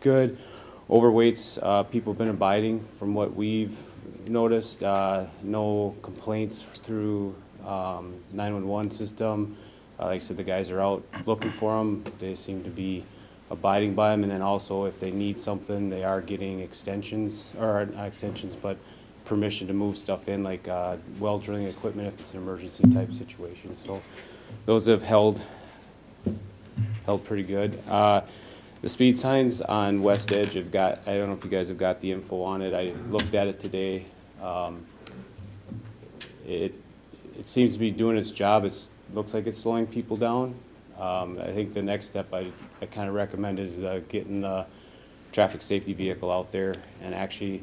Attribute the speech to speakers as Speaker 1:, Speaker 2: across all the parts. Speaker 1: good. Overweight's, uh, people have been abiding from what we've noticed. Uh, no complaints through, um, nine-one-one system. Uh, like I said, the guys are out looking for them. They seem to be abiding by them. And then also if they need something, they are getting extensions, or not extensions, but permission to move stuff in, like, uh, well drilling equipment if it's an emergency type situation. So those have held held pretty good. Uh, The speed signs on West Edge have got, I don't know if you guys have got the info on it, I looked at it today. Um, It, it seems to be doing its job, it's, looks like it's slowing people down. Um, I think the next step I, I kind of recommend is uh, getting the traffic safety vehicle out there and actually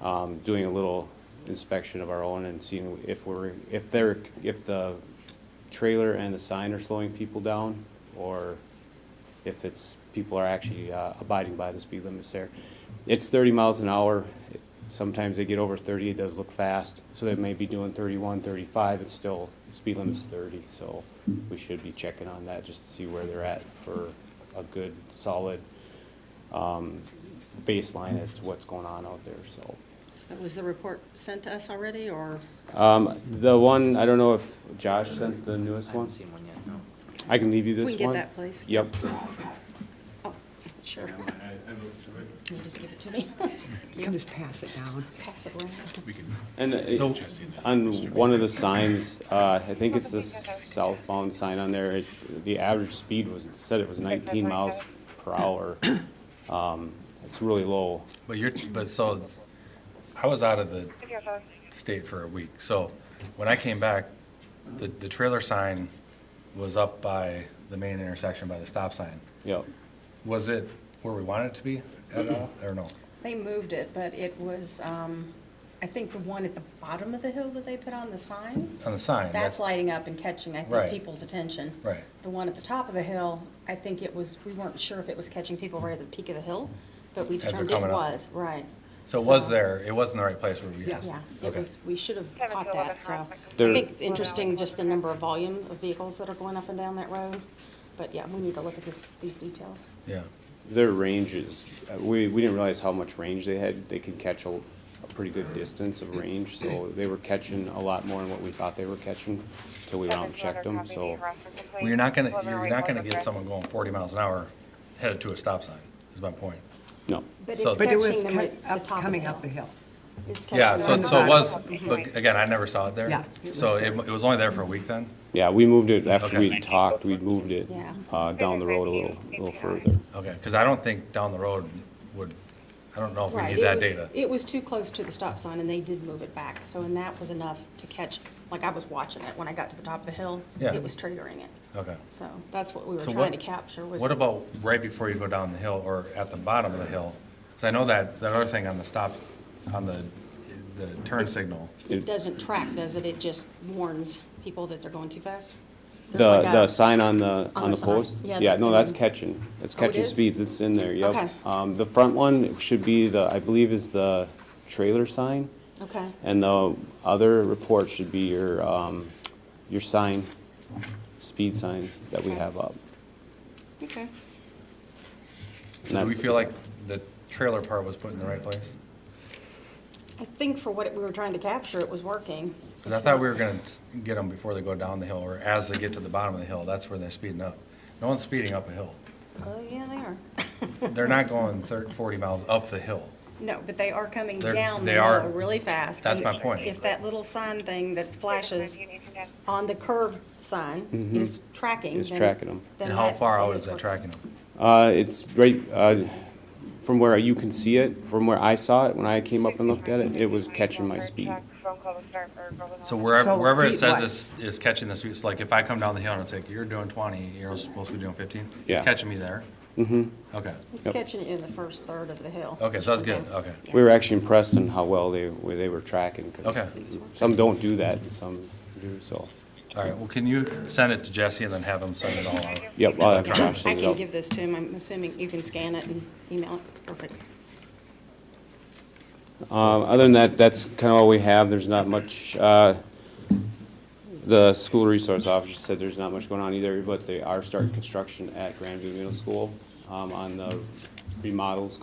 Speaker 1: um, doing a little inspection of our own and seeing if we're, if they're, if the trailer and the sign are slowing people down, or if it's, people are actually uh, abiding by the speed limits there. It's thirty miles an hour, sometimes they get over thirty, it does look fast, so they may be doing 31, 35. it's still, speed limit's thirty, so we should be checking on that, just to see where they're at for a good, solid um, baseline as to what's going on out there, so.
Speaker 2: Was the report sent to us already, or?
Speaker 1: Um, The one, I don't know if Josh sent the newest one,
Speaker 3: seen one yet, no.
Speaker 1: I can leave you this
Speaker 2: We
Speaker 1: one.
Speaker 2: can get that, please.
Speaker 1: Yep,
Speaker 2: Oh, sure. Can you just give it to me?
Speaker 4: You can just pass it down.
Speaker 2: Pass it around.
Speaker 1: And uh, on one of the signs, uh, I think it's the southbound sign on there, it- the average speed was, it said it was 19 miles per hour. Um, It's really low.
Speaker 5: But you're, but so, I was out of the state for a week, so when I came back, the, the trailer sign was up by the main intersection by the stop sign.
Speaker 1: Yep.
Speaker 5: Was it where we wanted it to be at all, or no?
Speaker 2: They moved it, but it was, um, I think the one at the bottom of the hill that they put on the sign,
Speaker 5: On the sign?
Speaker 2: that's lighting up and catching, I think,
Speaker 5: Right.
Speaker 2: people's attention.
Speaker 5: Right.
Speaker 2: The one at the top of the hill, I think it was, we weren't sure if it was catching people right at the peak of the hill, but we
Speaker 5: As they're
Speaker 2: determined it
Speaker 5: coming up.
Speaker 2: was, right.
Speaker 5: So it was there, it wasn't the right place where we asked?
Speaker 2: Yeah, it
Speaker 5: Okay.
Speaker 2: was, we should have
Speaker 6: Seven to
Speaker 2: caught
Speaker 6: eleven
Speaker 2: that, so. I
Speaker 6: cars.
Speaker 1: There-
Speaker 2: think it's interesting, just the number of volume of vehicles that are going up and down that road. But yeah, we need to look at this, these details.
Speaker 5: Yeah,
Speaker 1: Their range is, uh, we, we didn't realize how much range they had. They can catch a a pretty good distance of range, so they were catching a lot more than what we thought they were catching until we went out and checked them, so.
Speaker 5: well, you're not gonna, you're not gonna get someone going forty miles an hour headed to a stop sign, is my point.
Speaker 1: No,
Speaker 2: But
Speaker 5: So-
Speaker 2: it's
Speaker 5: But
Speaker 4: But it was
Speaker 2: catching them
Speaker 4: cut-
Speaker 2: at the
Speaker 4: up-
Speaker 2: top of
Speaker 4: coming up the hill.
Speaker 2: It's
Speaker 5: Yeah,
Speaker 2: catching
Speaker 5: so,
Speaker 2: them
Speaker 5: so it
Speaker 2: at
Speaker 5: was,
Speaker 2: the top.
Speaker 5: but again, I never saw it there.
Speaker 4: Yeah, it
Speaker 5: So
Speaker 4: was
Speaker 5: it, it was only there for a week then?
Speaker 1: yeah, we moved it after
Speaker 5: Okay.
Speaker 1: we talked, we moved it
Speaker 2: Yeah.
Speaker 1: uh, down the road a little, a little further.
Speaker 5: Okay, because I don't think down the road would, I don't know if we
Speaker 2: Right,
Speaker 5: need
Speaker 2: it
Speaker 5: that
Speaker 2: was-
Speaker 5: data.
Speaker 2: It was too close to the stop sign and they did move it back, so and that was enough to catch, like I was watching it when I got to the top of the hill.
Speaker 5: Yeah.
Speaker 2: It was triggering it.
Speaker 5: Okay.
Speaker 2: So that's what we were
Speaker 5: So
Speaker 2: trying to
Speaker 5: what-
Speaker 2: capture was.
Speaker 5: What about right before you go down the hill or at the bottom of the hill? Because I know that, that other thing on the stop, on the, the turn signal.
Speaker 2: It doesn't track, does it? It just warns people that they're going too fast?
Speaker 1: The,
Speaker 2: There's like a-
Speaker 1: the sign on the, on the
Speaker 2: the sign.
Speaker 1: post?
Speaker 2: Yeah,
Speaker 1: Yeah,
Speaker 2: the-
Speaker 1: no, that's catching. It's
Speaker 2: Oh, it
Speaker 1: catching
Speaker 2: is?
Speaker 1: speeds. It's in there, yep.
Speaker 2: Okay.
Speaker 1: Um, the front one should be the, I believe is the trailer sign.
Speaker 2: Okay,
Speaker 1: And the other report should be your, um, your sign, speed sign that we
Speaker 2: Okay.
Speaker 1: have up.
Speaker 2: okay.
Speaker 1: And
Speaker 5: Do we
Speaker 1: that's-
Speaker 5: feel like the trailer part was put in the right place?
Speaker 2: I think for what it- we were trying to capture, it was working.
Speaker 5: Because I thought we were going to get them before they go down the hill or as they get to the bottom of the hill, that's where they're speeding up. No one's speeding up a hill.
Speaker 2: Oh, yeah, they are.
Speaker 5: They're not going thir 40 miles up the hill.
Speaker 2: No, but they are coming
Speaker 5: They're-
Speaker 2: down the
Speaker 5: they are-
Speaker 2: hill really fast.
Speaker 5: That's
Speaker 2: And
Speaker 5: my point.
Speaker 2: If that little sign thing that flashes on the curb sign is tracking.
Speaker 1: Mm-hmm. It's
Speaker 2: then-
Speaker 1: tracking 'em.
Speaker 2: then
Speaker 5: And how
Speaker 2: that-
Speaker 5: far out
Speaker 2: that
Speaker 5: is that
Speaker 2: working.
Speaker 5: tracking them?
Speaker 1: Uh, it's right, uh, from where you can see it, from where I saw it, when I came up and looked at it, it was catching my speed.
Speaker 5: So wherever,
Speaker 4: So
Speaker 5: wherever it
Speaker 4: feet
Speaker 5: says
Speaker 4: wide.
Speaker 5: is, is catching the speed, it's like if I come down the hill and it's like, you're doing twenty, you're supposed to be doing fifteen?
Speaker 1: Yeah.
Speaker 5: It's catching me there? Mm-hmm. Okay,
Speaker 2: It's
Speaker 1: Yep.
Speaker 2: catching it in the first third of the hill.
Speaker 5: okay, so that's good, okay.
Speaker 1: We were actually impressed on how well they, where they were tracking. 'cause
Speaker 5: Okay.
Speaker 1: Some don't do that, and some do, so.
Speaker 5: All right, well, can you send it to Jesse and then have him send it all out?
Speaker 1: Yep, I'll have
Speaker 2: I
Speaker 1: Josh send it
Speaker 2: can
Speaker 1: out.
Speaker 2: give this to him. I'm assuming you can scan it and email it. Perfect.
Speaker 1: Um, Other than that, that's kind of all we have. There's not much, uh, the school resource officer said there's not much going on either, but they are starting construction at Grandview Middle School um, on the remodels